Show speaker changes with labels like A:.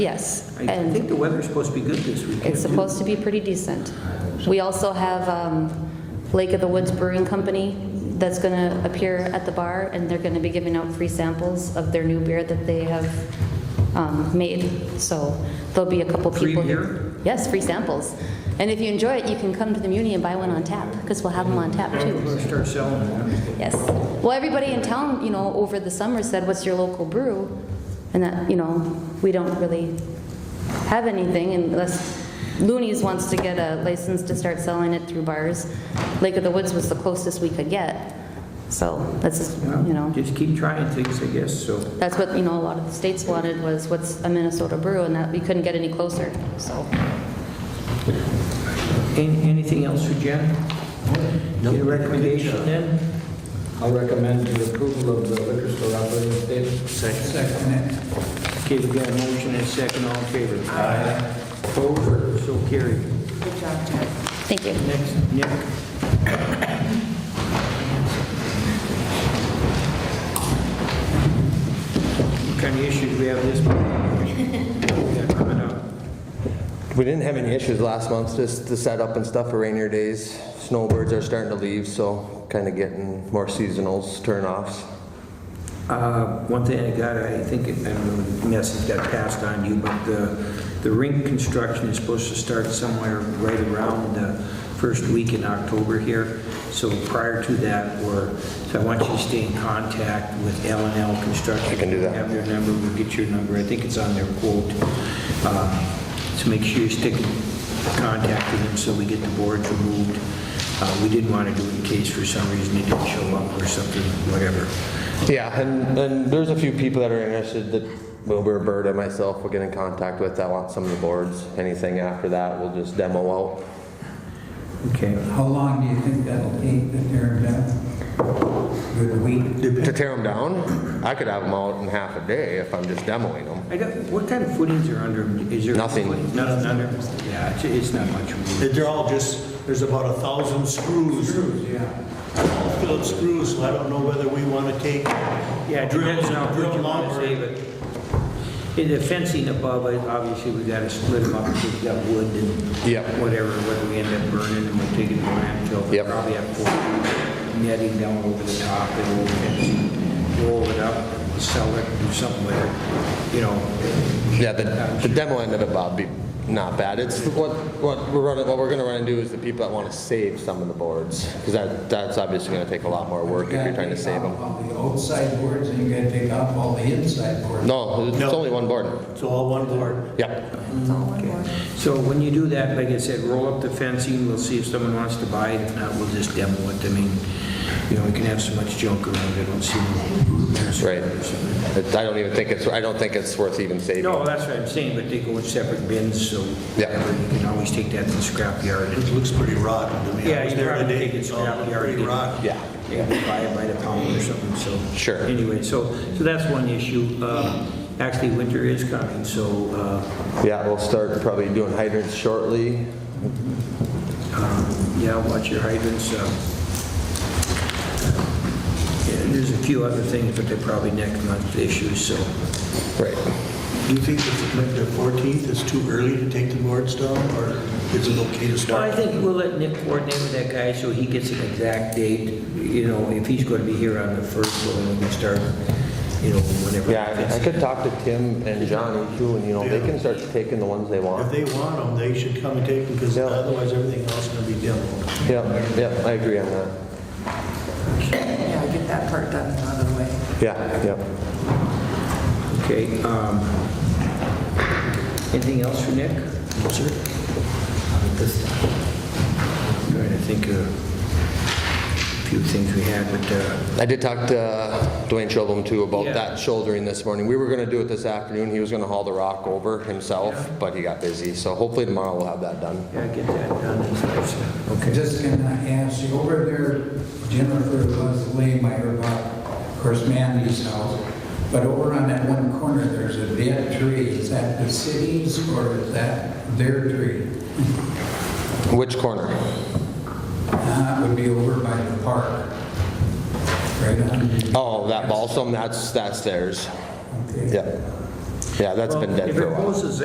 A: Yes,
B: I I think
A: and
B: the weather's supposed to be good this weekend.
A: it's supposed to be pretty decent. We also have um, Lake of the Woods Brewing Company that's going to appear at the bar, and they're going to be giving out free samples of their new beer that they have um, made. So there'll be a couple
B: Free
A: people. here.
B: beer?
A: Yes, free samples. And if you enjoy it, you can come to the Muni and buy one on tap, because we'll have them on tap
B: We're
A: too.
B: gonna start selling that.
A: Yes. Well, everybody in town, you know, over the summer said, what's your local brew? And that, you know, we don't really have anything unless Looney's wants to get a license to start selling it through bars. Lake of the Woods was the closest we could get. So that's, just, you know,
B: Just keep trying things, I guess, so.
A: that's what, you know, a lot of the states wanted was what's a Minnesota brew and that we couldn't get any closer, so.
B: An- Anything else for Jen?
C: No.
B: Your recommendation then?
C: I'll recommend the approval of the liquor store operating statement.
B: Second. Okay, we've got a motion and a second, all in favor? Aye. Opposed, so carried.
A: Thank you.
B: Next, Nick. What kind of issues we have this morning? We got coming up?
D: We didn't have any issues last month, just the setup and stuff for rainier days. Snowbirds are starting to leave, so kind of getting more seasonals, turnoffs.
B: Uh, One thing I got, I think, I don't know, message got passed on you, but the, the rink construction is supposed to start somewhere right around the first week in October here. So prior to that, or, so I want you to stay in contact with L and L Construction.
D: I can do that.
B: Have their number, we'll get your number. I think it's on their quote. Uh, So make sure you stick in contact with them so we get the boards removed. Uh, We didn't want to do it in case for some reason they didn't show up or something, whatever.
D: Yeah, and, and there's a few people that are interested that Wilbur Bird and myself will get in contact with that want some of the boards. Anything after that, we'll just demo out.
B: Okay.
E: How long do you think that'll take to tear it down? Good week?
D: To tear them down, I could have them out in half a day if I'm just demoing them.
B: I don't, what kind of footings are under, 'em? is there?
D: Nothing.
B: Nothing under, yeah, it's, it's not much.
F: That They're all just, there's about a thousand screws. Screws, yeah. All filled screws, so I don't know whether we want to take.
B: Yeah, it depends on how
F: drill
B: quick you want to
F: lumber.
B: save it. In the fencing above, I- obviously, we gotta split them up, because we got wood and.
D: Yep.
B: Whatever, whether we end up burning them or taking them to landfill.
D: Yep.
B: Probably have four netting down over the top, and we'll fence it, roll it up, sell it, do something with it, you know.
D: Yeah, the, the demo end of it, Bob, be not bad. It's what, what we're running, what we're gonna run into is the people that wanna save some of the boards. Cause that, that's obviously gonna take a lot more work if you're trying to save
E: You
D: them.
E: gotta take off all the outside boards and you gotta take off all the inside boards.
D: No, it's
F: No.
D: only one board.
F: It's all one board.
D: Yep,
B: So when you do that, like I said, roll up the fencing, we'll see if someone wants to buy it, if not, we'll just demo it. I mean, you know, we can have so much junk around, I don't see.
D: that's right. It- I don't even think it's, I don't think it's worth even saving.
B: No, that's what I'm saying, but they go in separate bins, so
D: Yeah.
B: whatever, you can always take that to the scrapyard.
F: It
B: and-
F: looks pretty rotten to me. I
B: Yeah,
F: was
B: you
F: there
B: probably
F: today,
B: think it's
F: all
B: rotten.
F: Pretty rotten.
D: Yeah.
B: Yeah, buy it by the pound or something, so.
D: Sure.
B: Anyway, so, so that's one issue. Um, Actually, winter is coming, so uh,
D: Yeah, we'll start probably doing hydrants shortly.
B: Yeah, watch your hydrants. uh, yeah, There's a few other things, but they're probably next month issues, so.
D: Right.
F: Do you think that like the 14th is too early to take the boards down, or is it okay to
B: Well,
F: start?
B: I think we'll let Nick coordinate with that guy so he gets an exact date, you know, if he's going to be here on the first, well, then we can start, you know, whenever.
D: Yeah, I- I could talk to Tim and Johnny too, and you know, they can start taking the ones they
F: If
D: want.
F: they want them, they should come and take them, because
D: Yeah.
F: otherwise everything else is going to be demoed.
D: Yep, yep, I agree on that.
G: Yeah, get that part done out of the way.
D: Yeah, yep.
B: Okay. um, Anything else for Nick? No, sir. Trying to think of a few things we had, but, uh,
D: I did talk to uh, Dwayne Chilbum too about
B: Yeah.
D: that shouldering this morning. We were gonna do it this afternoon. He was gonna haul the rock over himself, but he got busy. So hopefully tomorrow we'll have that done.
B: yeah, get that done. and stuff, so, Okay.
E: Just gonna ask you, over there, Jennifer was Lehmeyer, of course, Mandy's house, but over on that one corner, there's a dead tree. Is that the city's or is that their tree?
D: Which corner?
E: Uh, It would be over by the park. Right on.
D: Oh, that balsam, that's, that's theirs.
E: Okay.
D: Yep. Yeah, that's been
B: Well,
D: dead for a while.
B: If it goes as